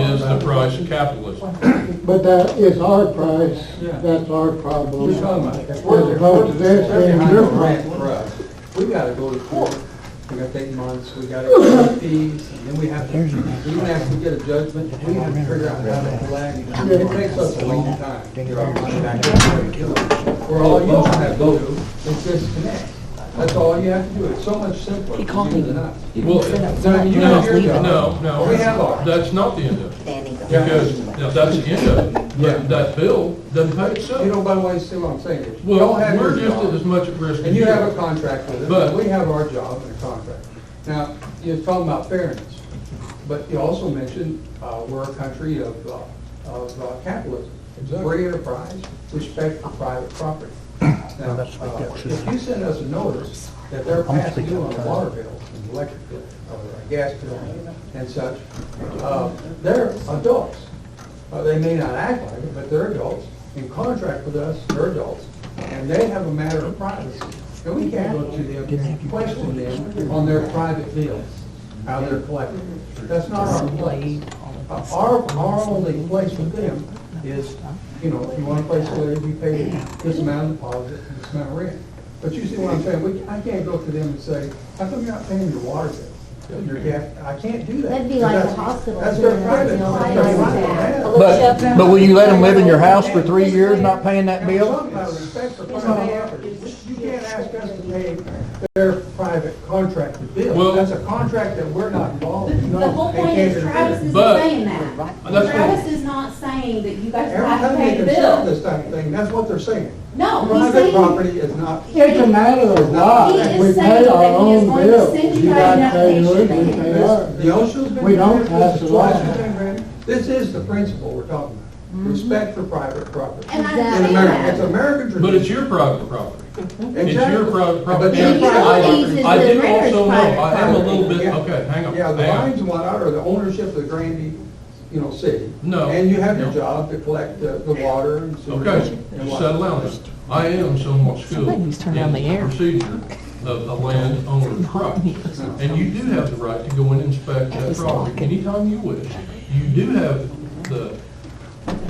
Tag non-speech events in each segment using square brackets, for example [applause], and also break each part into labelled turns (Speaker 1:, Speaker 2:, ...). Speaker 1: is the price of capitalism.
Speaker 2: But that is our price,
Speaker 3: Yeah.
Speaker 2: that's our problem.
Speaker 3: We're talking about-
Speaker 2: As opposed to this
Speaker 3: They're
Speaker 2: being
Speaker 3: behind
Speaker 2: your
Speaker 3: the grant
Speaker 2: problem.
Speaker 3: for us. We gotta go to court, we gotta take months, we gotta pay fees, and then we have, to even after we get a judgment, we have to figure out how to collect. It takes us a long time to get our money back. We're all you have to do is disconnect. That's all you have to do. It's so much simpler
Speaker 4: He
Speaker 3: for
Speaker 4: called me.
Speaker 3: you than us.
Speaker 1: Well,
Speaker 3: No, you have your
Speaker 1: no,
Speaker 3: job.
Speaker 1: no, no.
Speaker 3: We have ours.
Speaker 1: That's not the end of it,
Speaker 4: Danny goes.
Speaker 1: because if that's the end of it, that, that bill doesn't pay
Speaker 3: You
Speaker 1: itself.
Speaker 3: know, by the way, see what I'm saying? is you
Speaker 1: Well,
Speaker 3: don't have
Speaker 1: we're
Speaker 3: your
Speaker 1: just
Speaker 3: job.
Speaker 1: as much at risk as
Speaker 3: And
Speaker 1: you
Speaker 3: you have a
Speaker 1: are.
Speaker 3: contract with us,
Speaker 1: But-
Speaker 3: we have our job and a contract. Now, you're talking about fairness, but you also mentioned, uh, we're a country of, uh, of uh, capitalism.
Speaker 1: Exactly.
Speaker 3: Free enterprise, respect for private property. Now, uh, if you send us a notice that they're past due on a water bill, an electric bill, or a gas bill and such, uh, they're adults. Uh, They may not act like it, but they're adults, in contract with us, they're adults, and they have a matter of privacy. And we can't go to them, and question them on their private bills, how they're collected. That's not our place. Uh, Our, our only place with them is, you know, if you want to place a letter, you pay this amount of deposit, and this amount of rent. But you see what I'm saying, we, I can't go to them and say, how come you're not paying your water bill? Your gas, I can't do that.
Speaker 5: That'd be like
Speaker 3: That's-
Speaker 5: the hospital
Speaker 3: That's their
Speaker 5: doing that,
Speaker 3: private.
Speaker 5: you know,
Speaker 3: that's
Speaker 5: like
Speaker 3: their
Speaker 5: that.
Speaker 3: private.
Speaker 6: But, but will you let them live in your house for three years not paying that bill?
Speaker 3: And we're talking about respect for private property. You can't ask us to pay their private contracted bill.
Speaker 1: Well-
Speaker 3: That's a contract that we're not involved in.
Speaker 5: The whole point is Travis isn't
Speaker 1: But-
Speaker 5: saying that.
Speaker 1: That's what-
Speaker 5: Travis is not saying that you guys
Speaker 3: Every
Speaker 5: have to
Speaker 3: time they
Speaker 5: pay the
Speaker 3: consider
Speaker 5: bill.
Speaker 3: this type of thing, that's what they're saying.
Speaker 5: No, he's
Speaker 3: Private
Speaker 5: saying,
Speaker 3: property is not,
Speaker 2: It's a matter of
Speaker 5: He
Speaker 2: law,
Speaker 5: is
Speaker 2: we
Speaker 5: saying
Speaker 2: pay our
Speaker 5: that he is
Speaker 2: own
Speaker 5: going to
Speaker 2: bills.
Speaker 5: send you
Speaker 2: You
Speaker 5: guys
Speaker 2: gotta
Speaker 5: an
Speaker 2: pay yours,
Speaker 5: application.
Speaker 2: we pay ours.
Speaker 6: [laughs]
Speaker 2: [laughs]
Speaker 3: the OSHA's been.
Speaker 2: We don't
Speaker 3: granted, this
Speaker 2: pass
Speaker 3: is
Speaker 2: the law.
Speaker 3: twice it's been granted. This is the principle we're talking about, respect for private property.
Speaker 5: and Mm-hmm. I
Speaker 3: In
Speaker 5: say
Speaker 3: America, it's
Speaker 5: that.
Speaker 3: American tradition.
Speaker 1: But it's your private property. It's your
Speaker 3: Exactly.
Speaker 1: private
Speaker 3: But
Speaker 1: property.
Speaker 3: your
Speaker 1: And I-
Speaker 3: utilities is
Speaker 1: I
Speaker 5: the
Speaker 1: do
Speaker 5: renter's
Speaker 1: also know,
Speaker 5: private
Speaker 1: I am a little
Speaker 3: property.
Speaker 1: bit,
Speaker 3: Yeah.
Speaker 1: okay, hang on,
Speaker 3: Yeah, the
Speaker 1: hang
Speaker 3: lines
Speaker 1: on.
Speaker 3: and whatnot are the ownership of the Granby, you know, city.
Speaker 1: No.
Speaker 3: And you have your
Speaker 1: No.
Speaker 3: job to collect the, the water and sewer.
Speaker 1: Okay,
Speaker 3: and
Speaker 1: just
Speaker 3: what-
Speaker 1: settle down. I am somewhat skilled
Speaker 4: Somebody
Speaker 1: in
Speaker 4: needs to turn on the
Speaker 1: the
Speaker 4: air.
Speaker 1: procedure of
Speaker 4: [laughs]
Speaker 1: the landowner's property. And you do have the right to go and inspect that
Speaker 4: was
Speaker 1: property
Speaker 4: blocking.
Speaker 1: anytime you wish. You do have the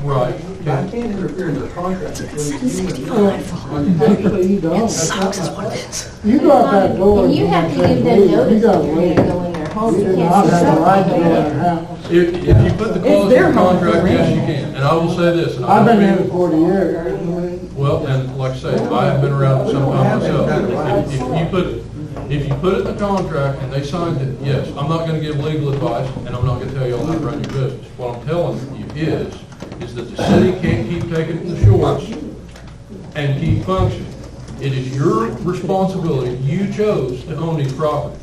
Speaker 1: right
Speaker 3: But I
Speaker 1: to
Speaker 3: can't interfere in the contract between you and
Speaker 6: Oh,
Speaker 3: me.
Speaker 2: Actually, you don't.
Speaker 3: That's not my place.
Speaker 2: You go out that door.
Speaker 5: And you have to give them
Speaker 2: and say, "Leave." You gotta leave.
Speaker 5: notice that you're gonna go in their home,
Speaker 2: You
Speaker 5: you
Speaker 2: do not
Speaker 5: can't just
Speaker 2: have a right
Speaker 5: stop
Speaker 2: to go in
Speaker 5: there.
Speaker 2: their house.
Speaker 1: If, if you put the clause in
Speaker 4: their
Speaker 1: the
Speaker 4: home,
Speaker 1: contract, yes, you
Speaker 4: right.
Speaker 1: can. And I will say this, and
Speaker 2: I've
Speaker 1: I
Speaker 2: been here
Speaker 1: don't mean,
Speaker 2: forty years.
Speaker 1: well, and like I say, I have been around some time myself. If if you put, if you put it in the contract and they signed it, yes, I'm not gonna give legal advice, and I'm not gonna tell y'all how to run your business. What I'm telling you is, is that the city can't keep taking the shorts and keep functioning. It is your responsibility, you chose to own these properties.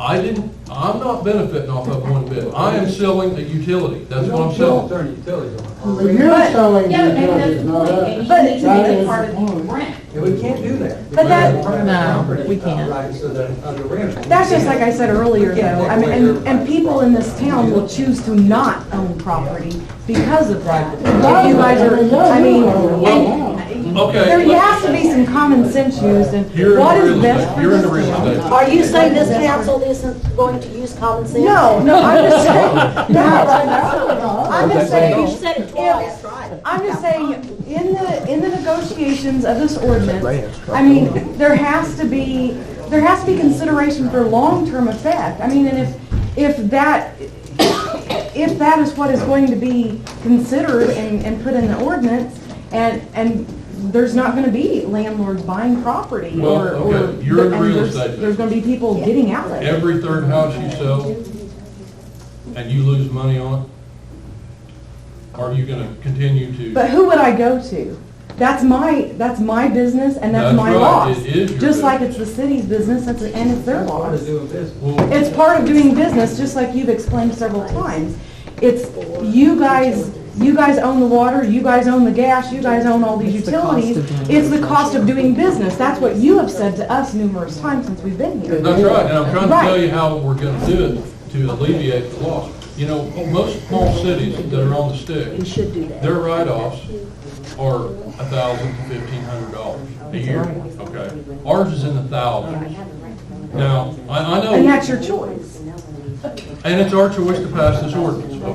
Speaker 1: I didn't, I'm not benefiting off of one bit. I am selling a utility, that's what I'm selling.
Speaker 3: Attorney utilities on
Speaker 2: But you're selling
Speaker 5: Yeah, but maybe that's
Speaker 2: utilities,
Speaker 5: the
Speaker 2: not us.
Speaker 5: point, and
Speaker 4: But-
Speaker 5: you need to
Speaker 2: That
Speaker 5: make it
Speaker 2: is
Speaker 5: part
Speaker 2: the
Speaker 5: of the
Speaker 2: point.
Speaker 5: rent.
Speaker 3: And we can't do that.
Speaker 6: But that-
Speaker 3: Because private
Speaker 4: No,
Speaker 3: property,
Speaker 4: we can't.
Speaker 3: uh, Rights of the, of the renter.
Speaker 6: That's just like I said earlier, though, I mean, and, and people in this town will choose to not own property because of that. If you guys are, I mean, and
Speaker 1: Okay.
Speaker 6: there
Speaker 1: let's-
Speaker 6: has to be some common sense used in
Speaker 1: You're
Speaker 6: what
Speaker 1: in the
Speaker 6: is
Speaker 1: real
Speaker 6: best
Speaker 1: estate,
Speaker 6: for
Speaker 1: you're in the
Speaker 6: this
Speaker 1: real
Speaker 6: town.
Speaker 1: estate.
Speaker 7: Are you saying this council isn't going to use common sense?
Speaker 6: No, no, I'm
Speaker 1: [laughs]
Speaker 6: just saying, no, I'm just saying,
Speaker 7: You said it twice.
Speaker 6: I'm just saying, in the, in the negotiations of this ordinance, I mean, there has to be, there has to be consideration for long-term effect. I mean, and if, if that, if that is what is going to be considered and, and put in the ordinance, and, and there's not gonna be landlords buying property
Speaker 1: Well,
Speaker 6: or, or.
Speaker 1: okay, you're in
Speaker 6: and
Speaker 1: real
Speaker 6: there's-
Speaker 1: estate
Speaker 6: There's gonna be people getting out of it.
Speaker 1: Every third house you sell and you lose money on it, are you gonna continue to?
Speaker 6: But who would I go to? That's my, that's my business and that's
Speaker 1: That's
Speaker 6: my
Speaker 1: right,
Speaker 6: loss.
Speaker 1: it is your
Speaker 6: Just like
Speaker 1: business.
Speaker 6: it's the city's business it's- and it's their
Speaker 3: Part
Speaker 6: loss.
Speaker 3: of doing business.
Speaker 1: Well,
Speaker 6: It's part of doing business, just like you've explained several times. It's, you guys, you guys own the water, you guys own the gas, you guys own all these
Speaker 4: It's the cost of
Speaker 6: utilities.
Speaker 4: doing
Speaker 6: It's the cost of doing business. That's what you have said to us numerous times since we've been here.
Speaker 1: That's right, and I'm trying to tell
Speaker 6: Right.
Speaker 1: you how we're gonna do it to alleviate the loss. You know, most small cities that are on the stick. Their write-offs are a thousand to fifteen hundred dollars a year, okay? Ours is in the thousands. Now, I, I know,
Speaker 6: And that's your choice.
Speaker 1: and it's our choice to pass this ordinance,